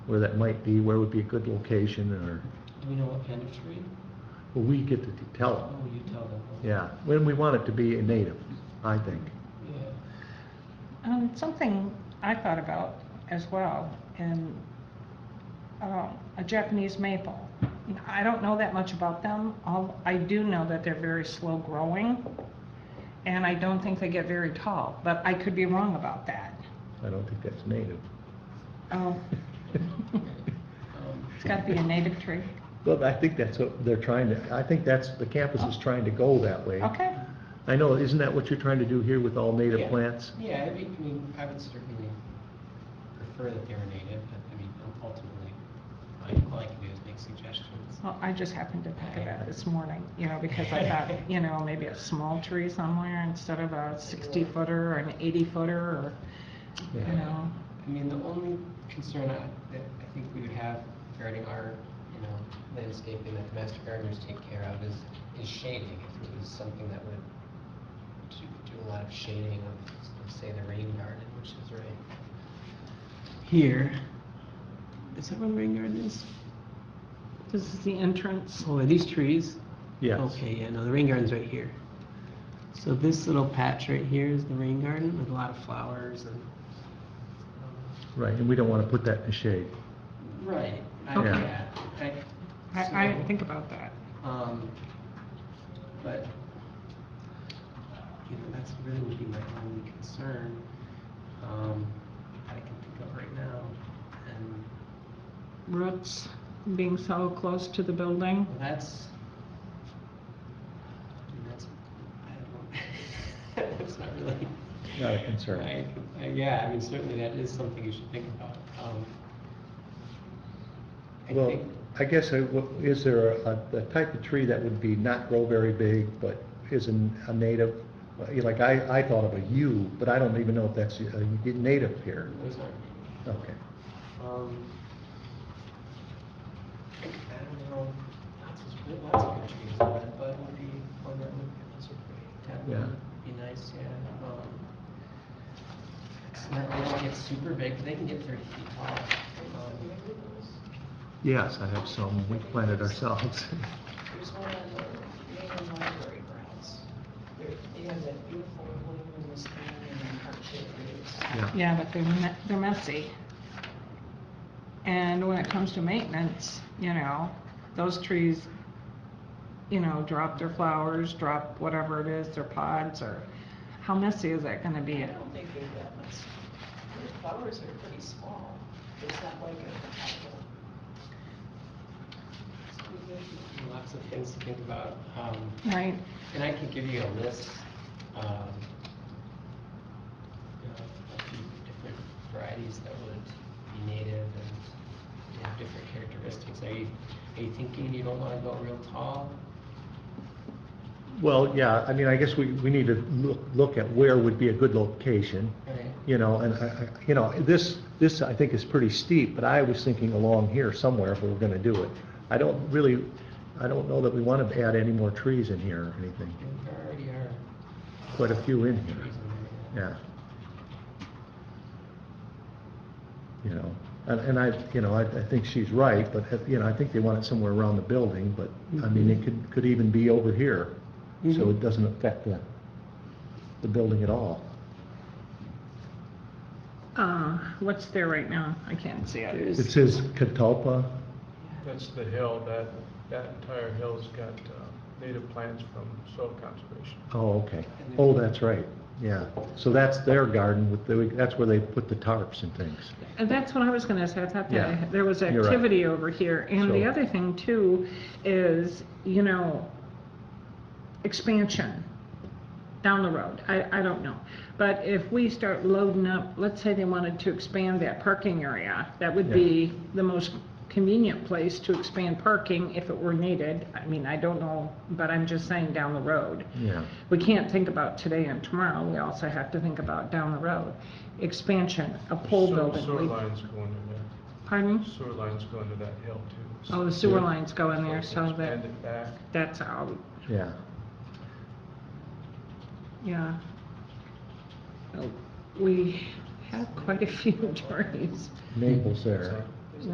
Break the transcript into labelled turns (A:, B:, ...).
A: where that might be, where would be a good location, or,
B: Do we know what kind of tree?
A: well, we get to tell
B: Oh,
A: them.
B: you tell them.
A: Yeah, when we want it to be a native, I think.
B: Yeah.
C: Um, something I thought about as well, and, um, a Japanese maple. I don't know that much about them, all, I do know that they're very slow growing, and I don't think they get very tall, but I could be wrong about that.
A: I don't think that's native.
C: Oh,
B: Um,
C: it's gotta be a native tree.
A: But I think that's what they're trying to, I think that's, the campus is trying to go that way.
C: Okay,
A: I know, isn't that what you're trying to do here with all native
B: yeah.
A: plants?
B: Yeah, I mean, I mean, I would certainly prefer that they were native, but I mean, ultimately, I- all I can do is make suggestions.
C: well, I just happened to think of that this morning, you know, because I thought, you know, maybe a small tree somewhere instead of a sixty footer or an eighty footer, or, you
A: Yeah.
C: know.
B: I mean, the only concern I, that I think we would have regarding our, you know, landscaping that the master gardeners take care of is, is shading. If it was something that would do, do a lot of shading of, let's say, the rain garden, which is right here. Is that where the rain garden is?
C: This is the entrance.
B: Oh, are these trees?
A: Yes.
B: Okay, yeah, no, the rain garden's right here. So this little patch right here is the rain garden with a lot of flowers and. um,
A: Right, and we don't want to put that in the shade.
B: Right. I-
A: Okay.
B: yeah, I-
C: I, I didn't
B: so,
C: think about that.
B: Um, but, you know, that's really would be my only concern, um, that I can think of right now. And,
C: Roots being so close to the building.
B: well, that's, I mean, that's, I don't, that's not really.
A: Not a concern.
B: I- I- Yeah, I mean, certainly that is something you should think about, um. I
A: Well,
B: think-
A: I guess, I- well, is there a, a type of tree that would be not grow very big, but isn't a native? Like, I, I thought of a yew, but I don't even know if that's a native here.
B: Those are,
A: Okay.
B: Um, I don't know, lots of, good- lots of good trees, the red bud would be one that would, those are pretty, that
A: Yeah.
B: would be nice, yeah. um, It's not, they don't get super big, but they can get thirty feet tall. Um,
A: Yes, I have some, we planted ourselves.
D: There's one on the main library grounds. There, they have that beautiful blue and this green and heart-shaped leaves.
A: Yeah.
C: Yeah, but they're, me- they're messy. And when it comes to maintenance, you know, those trees, you know, drop their flowers, drop whatever it is, their pods, or how messy is that gonna be?
D: I don't think they're that much, their flowers are pretty small. It's not like a.
B: Lots of things to think about, um,
C: Right?
B: and I can give you a list, um, you know, a few different varieties that would be native and have different characteristics. Are you, are you thinking you don't wanna go real tall?
A: Well, yeah, I mean, I guess we, we need to look, look at where would be a good location,
B: Right.
A: you know, and I, I- you know, this, this I think is pretty steep, but I was thinking along here somewhere if we were gonna do it. I don't really, I don't know that we want to add any more trees in here or anything,
B: There already are
A: quite a few in
B: trees
A: here.
B: in there.
A: Yeah. You know, and, and I, you know, I, I think she's right, but, uh, you know, I think they want it somewhere around the building, but, I mean, it could, could even be over here. So it
B: Mhm.
A: doesn't affect the, the building at all.
C: Uh, what's there right now? I can't see it.
A: It says catalpa,
E: That's the hill, that, that entire hill's got uh, native plants from soil conservation.
A: oh, okay. Oh, that's right, yeah. So that's their garden with the, that's where they put the tarps and things.
C: And that's what I was gonna say, I thought
A: Yeah.
C: that there was
A: You're right.
C: activity over here. And the
A: So-
C: other thing too is, you know, expansion down the road. I, I don't know. But if we start loading up, let's say they wanted to expand that parking area, that would
A: Yeah.
C: be the most convenient place to expand parking if it were needed. I mean, I don't know, but I'm just saying down the road
A: Yeah,
C: we can't think about today and tomorrow, we also have to think about down the road. Expansion, a pole
E: Sewer-
C: building.
E: Sewer
C: we-
E: lines go into that,
C: Pardon?
E: sewer lines go into that hill too. so-
C: Oh, the sewer lines go in there, so
E: Expand
C: that,
E: it back.
C: that's out,
A: yeah.
C: yeah. Oh, We have quite a few attorneys.
A: Maples there.
E: So-